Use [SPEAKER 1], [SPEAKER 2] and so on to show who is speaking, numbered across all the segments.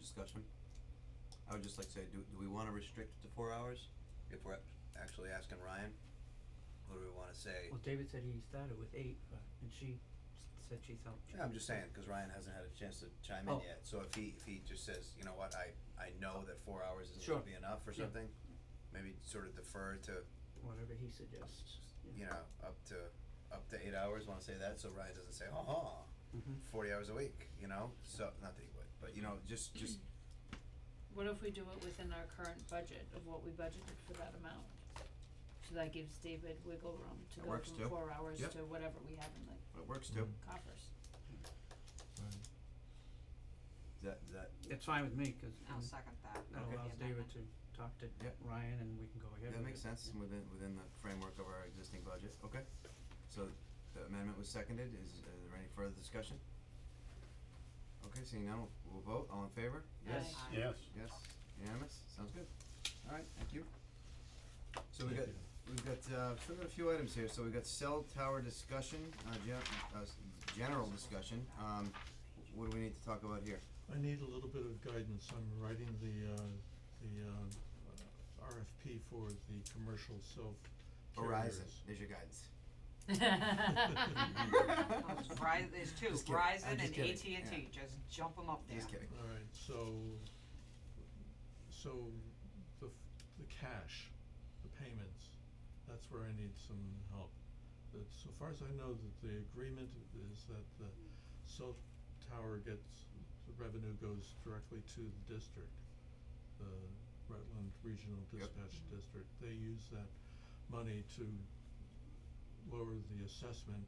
[SPEAKER 1] discussion? I would just like to say, do, do we wanna restrict it to four hours, if we're actually asking Ryan? Or do we wanna say,
[SPEAKER 2] Well, David said he started with eight, and she s- said she thought.
[SPEAKER 1] Yeah, I'm just saying, cause Ryan hasn't had a chance to chime in
[SPEAKER 2] Oh.
[SPEAKER 1] yet, so if he, if he just says, you know what, I, I know that four hours isn't gonna
[SPEAKER 2] Sure.
[SPEAKER 1] be enough or
[SPEAKER 2] Yeah.
[SPEAKER 1] something, maybe sort of defer to,
[SPEAKER 2] Whatever he suggests,
[SPEAKER 1] you know, up to, up to eight hours, wanna say that, so Ryan doesn't say, oh,
[SPEAKER 2] Mm-hmm.
[SPEAKER 1] forty hours a week, you know, so, not that he would, but you know, just, just
[SPEAKER 3] What if we do it within our current budget of what we budgeted for that amount? So that gives David wiggle room to
[SPEAKER 1] That
[SPEAKER 3] go
[SPEAKER 1] works too.
[SPEAKER 3] from four hours
[SPEAKER 1] Yep.
[SPEAKER 3] to whatever we have in
[SPEAKER 1] It
[SPEAKER 3] the
[SPEAKER 1] works
[SPEAKER 2] Mm-hmm.
[SPEAKER 1] too.
[SPEAKER 3] coffers.
[SPEAKER 1] That, that,
[SPEAKER 2] It's fine with me, cause
[SPEAKER 4] I'll
[SPEAKER 2] um,
[SPEAKER 4] second that.
[SPEAKER 2] that
[SPEAKER 4] with the
[SPEAKER 2] allows David
[SPEAKER 4] amendment.
[SPEAKER 2] to talk to
[SPEAKER 1] Yep.
[SPEAKER 2] Ryan and we can go ahead with it.
[SPEAKER 1] that makes sense within, within the framework of our existing budget, okay? So the amendment was seconded, is, uh there any further discussion? Okay, seeing none, we'll we'll vote, all in favor?
[SPEAKER 2] Yes.
[SPEAKER 4] Aye.
[SPEAKER 5] Yes.
[SPEAKER 1] Yes, unanimous, sounds good. Alright, thank you. So we got, we've got, uh, sort of a few items here, so we've got cell tower discussion, uh, gen- uh, s- general discussion, um, what do we need to talk about here?
[SPEAKER 5] I need a little bit of guidance, I'm writing the uh the uh RFP for the commercial self carriers.
[SPEAKER 1] Verizon, there's your guidance.
[SPEAKER 4] Oh, it's Verizon, there's two,
[SPEAKER 1] Just kidding. I'm
[SPEAKER 4] Verizon
[SPEAKER 1] just
[SPEAKER 4] and
[SPEAKER 1] kidding.
[SPEAKER 4] AT&T, just jump them up there.
[SPEAKER 1] Just kidding.
[SPEAKER 5] Alright, so so the f- the cash, the payments, that's where I need some help. That so far as I know, that the agreement is that the cell tower gets, the revenue goes directly to the district, the Rutland Regional
[SPEAKER 1] Yep.
[SPEAKER 5] Dispatch District. They use that money to lower the assessment.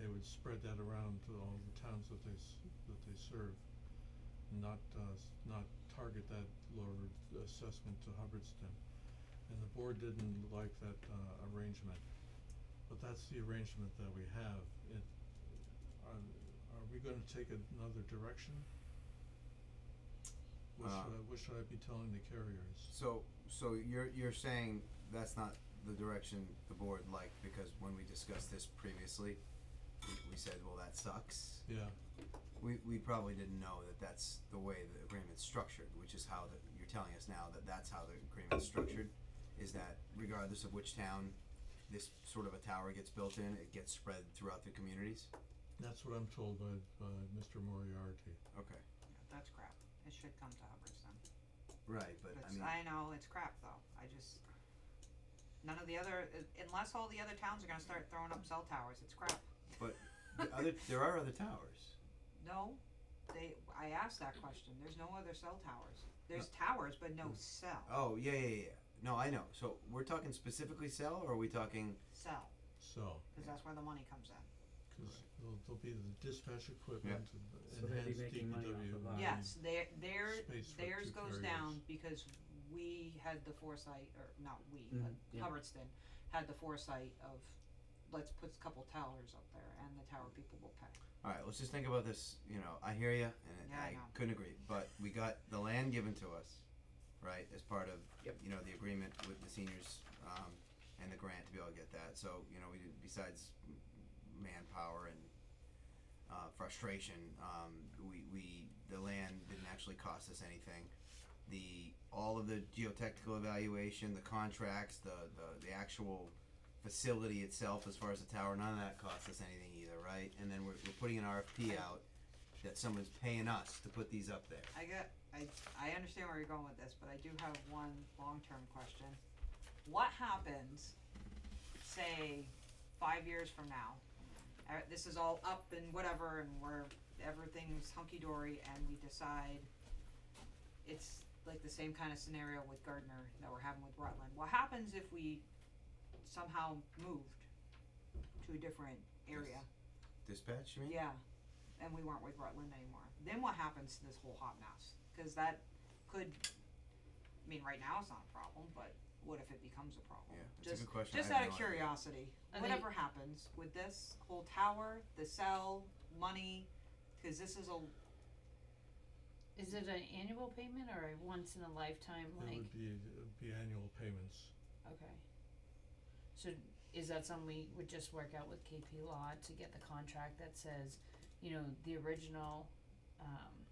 [SPEAKER 5] They would spread that around to all the towns that they s- that they serve not uh s- not target that lower assessment to Hubbardston. And the board didn't like that uh arrangement, but that's the arrangement that we have. It, are are we gonna take another direction? What
[SPEAKER 1] Uh,
[SPEAKER 5] should I, what should I be telling the carriers?
[SPEAKER 1] So, so you're, you're saying that's not the direction the board liked, because when we discussed this previously, we, we said, well, that sucks.
[SPEAKER 5] Yeah,
[SPEAKER 1] We, we probably didn't know that that's the way the agreement's structured, which is how the, you're telling us now that that's how the agreement's structured, is that regardless of which town this sort of a tower gets built in, it gets spread throughout the communities?
[SPEAKER 5] that's what I'm told by by Mr. Moriarty.
[SPEAKER 1] Okay,
[SPEAKER 4] That's crap, it should come to Hubbardston,
[SPEAKER 1] right, but I
[SPEAKER 4] It's-
[SPEAKER 1] mean,
[SPEAKER 4] I know, it's crap though, I just, none of the other, uh, unless all the other towns are gonna start throwing up cell towers, it's crap.
[SPEAKER 1] But the other, there are other towers.
[SPEAKER 4] No, they, I asked that question, there's no other cell towers, there's towers, but no cell,
[SPEAKER 1] Oh, yeah, yeah, yeah, no, I know, so we're talking specifically cell, or are we talking
[SPEAKER 4] cell,
[SPEAKER 5] So,
[SPEAKER 4] cause that's where the money comes in.
[SPEAKER 5] cause there'll there'll be the dispatch equipment,
[SPEAKER 2] So they'll
[SPEAKER 5] and
[SPEAKER 2] be
[SPEAKER 5] enhanced DPW.
[SPEAKER 2] making money off of that. Right.
[SPEAKER 4] Yes, their, their,
[SPEAKER 5] Space for
[SPEAKER 4] theirs
[SPEAKER 5] two
[SPEAKER 4] goes
[SPEAKER 5] carriers.
[SPEAKER 4] down because we had the foresight, or not we,
[SPEAKER 2] Mhm,
[SPEAKER 4] but
[SPEAKER 2] yeah.
[SPEAKER 4] Hubbardston had the foresight of, let's put a couple towers up there and the tower people will pay.
[SPEAKER 1] All right, let's just think about this. You know, I hear you, and
[SPEAKER 4] Yeah, I
[SPEAKER 1] I
[SPEAKER 4] know.
[SPEAKER 1] couldn't agree. But we got the land given to us, right, as part of
[SPEAKER 2] Yep.
[SPEAKER 1] you know the agreement with the seniors um, and the grant to be able to get that. So you know, we did besides m- manpower and uh, frustration, um, we we the land didn't actually cost us anything. The all of the geotechnical evaluation, the contracts, the the, the actual facility itself as far as the tower, none of that costs us anything either, right? And then we're, we're putting an RFP out that someone's paying us to put these up there.
[SPEAKER 4] I get, I, I understand where you're going with this, but I do have one long-term question. What happens, say, five years from now? Uh, this is all up and whatever, and we're, everything's hunky-dory, and we decide it's like the same kind of scenario with Gardner that we're having with Rutland. What happens if we somehow moved to a different area?
[SPEAKER 1] Dispatch, you mean?
[SPEAKER 4] Yeah, and we weren't with Rutland anymore. Then what happens to this whole hot mess? Cause that could, I mean, right now it's not a problem, but what if it becomes a problem?
[SPEAKER 1] Yeah, that's a
[SPEAKER 4] Just,
[SPEAKER 1] good question. I
[SPEAKER 4] Just out
[SPEAKER 1] have
[SPEAKER 4] of
[SPEAKER 1] no idea.
[SPEAKER 4] curiosity,
[SPEAKER 3] I think-
[SPEAKER 4] whatever happens with this whole tower, the cell, money, cause this is a,
[SPEAKER 3] Is it an annual payment or a once in a lifetime
[SPEAKER 5] It
[SPEAKER 3] like,
[SPEAKER 5] would be, it would be annual payments.
[SPEAKER 3] okay. So is that something we would just work out with KP Law to get the contract that says, you know, the original, um,